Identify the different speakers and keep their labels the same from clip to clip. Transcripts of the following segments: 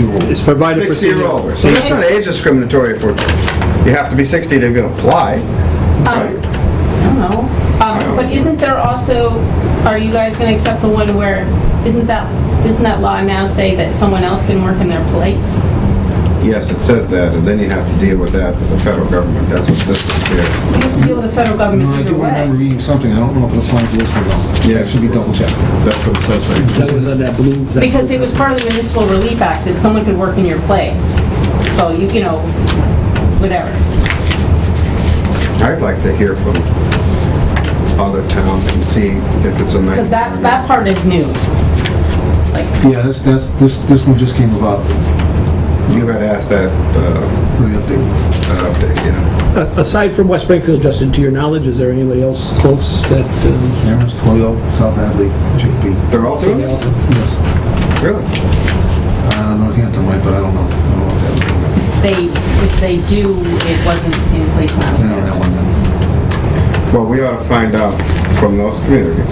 Speaker 1: It's provided for.
Speaker 2: 60 or
Speaker 1: senior-
Speaker 2: older. So that's not age discriminatory for, you have to be 60 to even apply.
Speaker 3: Um.
Speaker 2: right?
Speaker 3: I don't know. Um, But isn't there also, are you guys going to accept the one where, isn't that, doesn't that law now say that someone else can work in their place?
Speaker 2: Yes, it says that, and then you have to deal with that with the federal government. That's what this is here.
Speaker 3: You have to deal with the federal
Speaker 4: No,
Speaker 3: government
Speaker 4: I
Speaker 3: either
Speaker 4: do remember
Speaker 3: way.
Speaker 4: reading something, I don't know if it applies to this one though.
Speaker 2: Yeah.
Speaker 4: It should be double checked.
Speaker 2: That's what it says right here.
Speaker 1: That was on that blue. that-
Speaker 3: Because it was part of the Municipal Relief Act that someone could work in your place. So you, you know, whatever.
Speaker 2: I'd like to hear from other towns and see if it's a nice.
Speaker 3: Because that, that part is new. Like,
Speaker 4: Yeah, that's, that's, this, this one just came about,
Speaker 2: You had asked that uh,
Speaker 4: really updated.
Speaker 2: that update, yeah.
Speaker 1: A- Aside from West Springfield, Justin, to your knowledge, is there anybody else close that? um,
Speaker 4: Amherst, Toledo, South Hadley, Chicopee.
Speaker 2: They're all doing it?
Speaker 4: Yes.
Speaker 2: Really?
Speaker 4: Uh, Northampton might, but I don't know. I don't know if that was,
Speaker 3: they, if they do, it wasn't in place when I was
Speaker 4: I don't know that one
Speaker 3: there.
Speaker 4: then.
Speaker 2: Well, we ought to find out from those communities.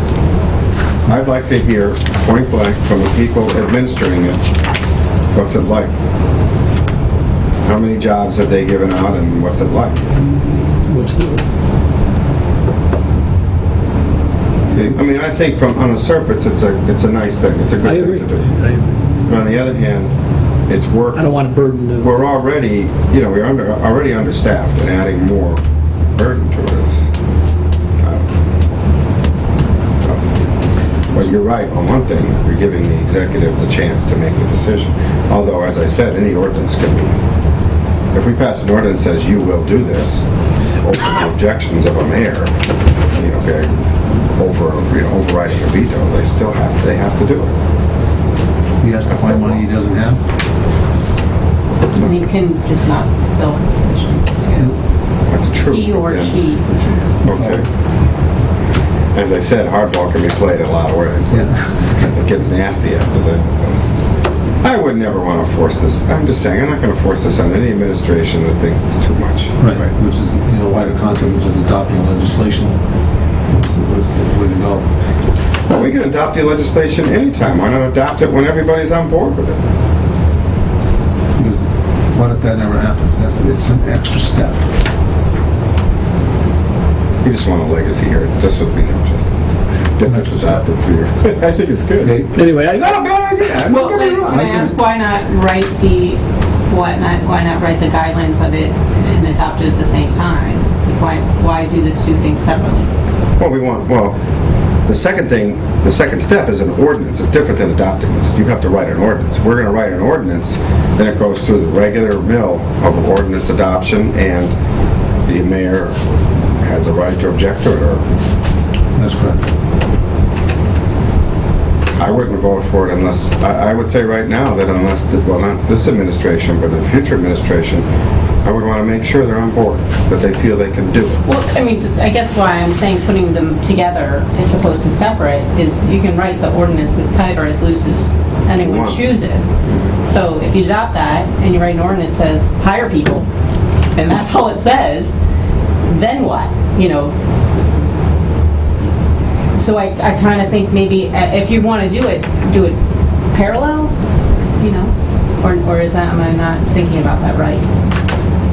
Speaker 2: I'd like to hear point blank from the people administering it, what's it like? How many jobs have they given out and what's it like?
Speaker 1: What's the,
Speaker 2: I mean, I think from, on the surface, it's a, it's a nice thing, it's a
Speaker 1: I
Speaker 2: good
Speaker 1: agree.
Speaker 2: thing to do.
Speaker 1: I
Speaker 2: But on the other hand, it's work,
Speaker 1: I don't want to burden the,
Speaker 2: we're already, you know, we're under, already understaffed and adding more burden to us. Um, But you're right, on one thing, you're giving the executive the chance to make the decision. Although, as I said, any ordinance can be, if we pass an ordinance that says you will do this, open to objections of a mayor, you know, okay, over, you know, overriding a veto, they still have, they have to do it.
Speaker 4: He has to find money he doesn't have.
Speaker 3: And you can just not fill positions too.
Speaker 2: That's true.
Speaker 3: He or
Speaker 2: Yeah.
Speaker 3: she.
Speaker 2: Okay. As I said, hardball can be played in a lot of ways. but It gets nasty after that. I would never want to force this, I'm just saying, I'm not going to force this on any administration that thinks it's too much.
Speaker 4: Right, which is, you know, why the concept, which is adopting legislation, was was the way to go.
Speaker 2: Well, we can adopt the legislation anytime, why not adopt it when everybody's on board with it?
Speaker 4: Because what if that never happens? That's, it's an extra step.
Speaker 2: We just want a legacy here, just would be no just. Get this adopted for you. I think it's good.
Speaker 4: Okay?
Speaker 1: anyway,
Speaker 2: It's
Speaker 1: I,
Speaker 2: not a bad idea, I'm
Speaker 3: Well,
Speaker 2: not
Speaker 3: wait,
Speaker 2: gonna
Speaker 3: can I ask why not write the, why not, why not write the guidelines of it and adopt it at the same time? Like, Why, why do the two things separately?
Speaker 2: Well, we want, well, the second thing, the second step is an ordinance. It's different than adopting this. You have to write an ordinance. If We're going to write an ordinance, then it goes through the regular mill of ordinance adoption, and the mayor has a right to object to it, or
Speaker 4: That's correct.
Speaker 2: I wouldn't vote for it unless, I I would say right now that unless, well, not this administration, but in future administration, I would want to make sure they're on board, that they feel they can do it.
Speaker 3: Well, I mean, I guess why I'm saying putting them together as opposed to separate is you can write the ordinance as tight or as loose as anyone
Speaker 2: Wow.
Speaker 3: chooses. So if you adopt that and you write an ordinance that says hire people, and that's all it says, then what? You know? So I, I kind of think maybe uh, if you want to do it, do it parallel, you know? Or, or is that, am I not thinking about that right?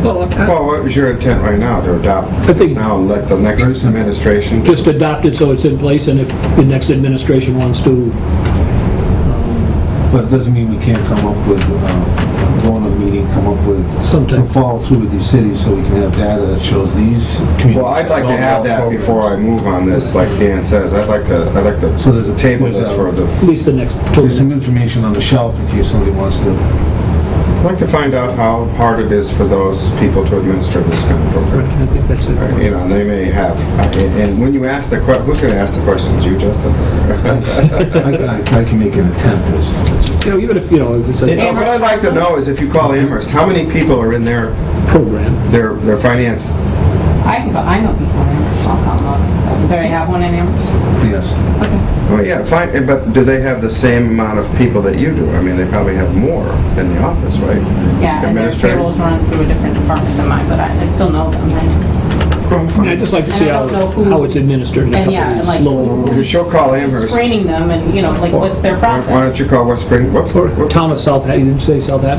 Speaker 1: well, I-
Speaker 2: Well, what is your intent right now, to adopt
Speaker 1: I think-
Speaker 2: this now and let the next
Speaker 4: Very simple.
Speaker 2: administration?
Speaker 1: just adopt it so it's in place, and if the next administration wants to,
Speaker 4: But it doesn't mean we can't come up with, uh, go in a meeting, come up with some
Speaker 1: Sometime.
Speaker 4: follow through with these cities so we can have data that shows these communities.
Speaker 2: Well, I'd like to have that before I move on this, like Dan says, I'd like to, I'd like
Speaker 4: So
Speaker 2: to
Speaker 4: there's a
Speaker 2: table this for the,
Speaker 1: at least the next,
Speaker 4: There's
Speaker 3: Mm-hmm.
Speaker 4: some information on the shelf in case somebody wants to.
Speaker 2: I'd like to find out how hard it is for those people to administer this kind of program.
Speaker 1: I think that's it.
Speaker 2: You know, they may have, and and when you ask the que, who's gonna ask the questions, you, Justin?
Speaker 4: I, I- I can make an attempt, it's just- it's just,
Speaker 1: You know, even if, you know, if it's
Speaker 2: You know,
Speaker 1: a
Speaker 2: What I'd like to know is if you call Amherst, how many people are in their,
Speaker 1: program,
Speaker 2: their, their finance?
Speaker 3: I can go, I know people in Amherst, I'll call them up. Do they have one in Amherst?
Speaker 4: yes.
Speaker 2: Well, Oh, yeah, fine, but do they have the same amount of people that you do? I mean, they probably have more in the office, right?
Speaker 3: Yeah, and their
Speaker 2: Administrators.
Speaker 3: payrolls run through a different department than mine, but I, I still know them.
Speaker 2: Well, fine.
Speaker 1: I'd just like to see
Speaker 3: And I
Speaker 1: how,
Speaker 3: don't know who-
Speaker 1: how it's administered in a
Speaker 3: And yeah,
Speaker 1: couple
Speaker 3: and
Speaker 1: of
Speaker 3: like-
Speaker 1: these lower
Speaker 2: If She'll call Amherst.
Speaker 3: screening them and, you know, like, what's their
Speaker 2: Why-
Speaker 3: process?
Speaker 2: Why don't you call West Spring, what's, what's
Speaker 1: Town of South, you didn't say South Hadley?